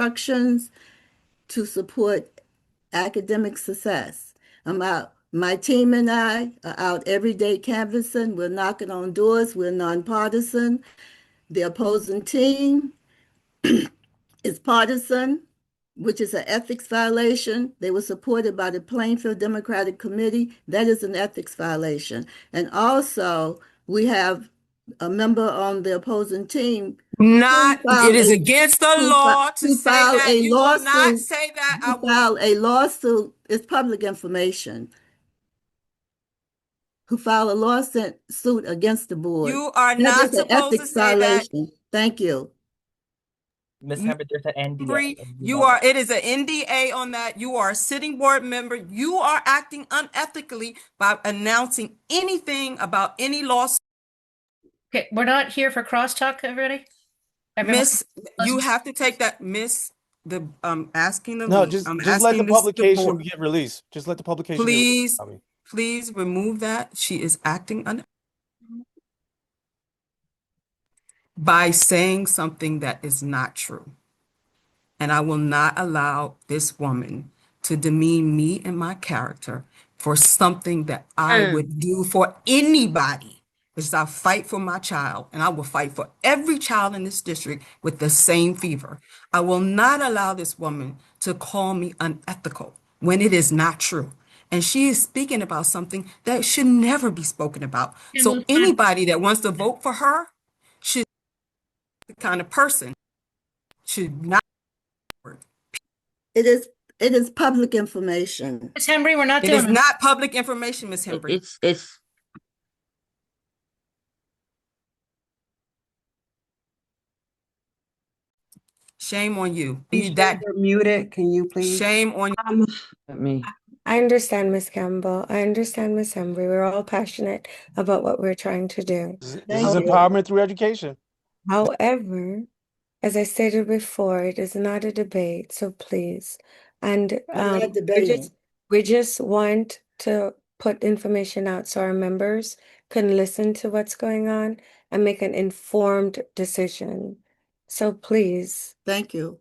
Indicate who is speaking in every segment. Speaker 1: instructions to support academic success. I'm out. My team and I are out every day canvassing. We're knocking on doors. We're nonpartisan. The opposing team is partisan, which is an ethics violation. They were supported by the Plainfield Democratic Committee. That is an ethics violation. And also, we have a member on the opposing team
Speaker 2: Not,
Speaker 1: Who filed
Speaker 2: it is
Speaker 1: a-
Speaker 2: against the
Speaker 1: who
Speaker 2: law
Speaker 1: fi-
Speaker 2: to
Speaker 1: who
Speaker 2: say
Speaker 1: filed
Speaker 2: that.
Speaker 1: a
Speaker 2: You will not
Speaker 1: lawsuit
Speaker 2: say that. I
Speaker 1: to
Speaker 2: will-
Speaker 1: file a lawsuit, it's public information. Who file a lawsuit suit against the board.
Speaker 2: You are
Speaker 1: That
Speaker 2: not
Speaker 1: is an
Speaker 2: supposed to
Speaker 1: ethics
Speaker 2: say that.
Speaker 1: violation. Thank you.
Speaker 3: Miss
Speaker 2: M-
Speaker 3: Hubbard, there's an NDA.
Speaker 2: Bree,
Speaker 3: and
Speaker 2: You
Speaker 3: know
Speaker 2: are,
Speaker 3: that.
Speaker 2: it is an NDA on that. You are a sitting board member. You are acting unethically by announcing anything about any lawsuit.
Speaker 4: Okay, we're not here for crosstalk, everybody? Everyone?
Speaker 2: Miss, you have to take that, miss, the, um, asking the.
Speaker 5: No,
Speaker 2: lead.
Speaker 5: just
Speaker 2: I'm
Speaker 5: just let the
Speaker 2: asking this-
Speaker 5: publication
Speaker 2: board.
Speaker 5: get released. Just let the publication. get released,
Speaker 2: Please,
Speaker 5: Tommy.
Speaker 2: please remove that. She is acting un- by saying something that is not true. And I will not allow this woman to demean me and my character for something that I would do for anybody. Because I fight for my child and I will fight for every child in this district with the same fever. I will not allow this woman to call me unethical when it is not true. And she is speaking about something that should never be spoken about. So
Speaker 4: Can we-
Speaker 2: anybody that wants to vote for her should the kind of person should not
Speaker 1: It is, it is public information.
Speaker 4: Miss Henry, we're not
Speaker 2: It is
Speaker 4: doing it.
Speaker 2: not public information, Ms.
Speaker 6: It-
Speaker 2: Henry.
Speaker 6: It's, it's,
Speaker 2: Shame on you.
Speaker 7: You
Speaker 2: You
Speaker 7: should-
Speaker 2: that
Speaker 7: You're muted, can you please?
Speaker 2: shame on you.
Speaker 8: Um,
Speaker 6: let me,
Speaker 8: I understand, Miss Campbell. I understand, Miss Embry. We're all passionate about what we're trying to do.
Speaker 5: This is-
Speaker 1: Thank
Speaker 5: this is
Speaker 1: you.
Speaker 5: empowerment through education.
Speaker 8: However, as I stated before, it is not a debate, so please. And
Speaker 1: I'm
Speaker 8: um,
Speaker 1: not
Speaker 8: we
Speaker 1: debating.
Speaker 8: just we just want to put information out so our members can listen to what's going on and make an informed decision. So please,
Speaker 1: Thank you.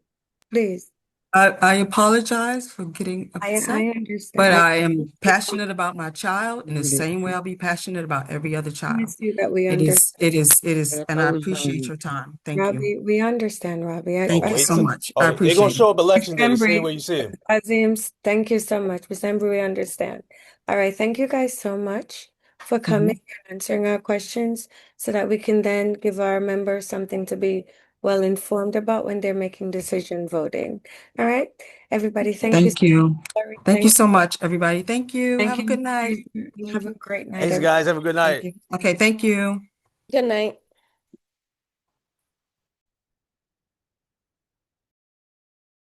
Speaker 8: please,
Speaker 2: I, I apologize for getting
Speaker 8: I
Speaker 2: upset,
Speaker 8: I understand.
Speaker 2: but
Speaker 8: I
Speaker 2: I am passionate about my child in the same way I'll be passionate about every other child.
Speaker 8: promise you that we
Speaker 2: It
Speaker 8: understand.
Speaker 2: is, it is, it is, and I
Speaker 6: Always
Speaker 2: appreciate
Speaker 6: done.
Speaker 2: your time. Thank you.
Speaker 8: um, Robbie, we understand, Robbie. I,
Speaker 2: Thank
Speaker 8: I,
Speaker 2: you
Speaker 5: wait
Speaker 2: so
Speaker 5: till-
Speaker 2: much. I
Speaker 5: Oh, they're gonna
Speaker 2: appreciate it.
Speaker 5: show up election day. See it
Speaker 8: Embry.
Speaker 5: where you see it.
Speaker 8: Azim's, thank you so much. Ms. Embry, we understand. All right, thank you guys so much for
Speaker 2: Mm-hmm.
Speaker 8: coming and answering our questions so that we can then give our members something to be well informed about when they're making decision voting. All right, everybody, thank you.
Speaker 2: Thank you.
Speaker 8: so much.
Speaker 2: Thank you so much, everybody. Thank you.
Speaker 8: Thank
Speaker 2: Have a
Speaker 8: you.
Speaker 2: good night.
Speaker 8: Have a great night.
Speaker 5: Thanks,
Speaker 8: everyone.
Speaker 5: guys. Have a good night.
Speaker 2: Okay, thank you.
Speaker 8: Good night.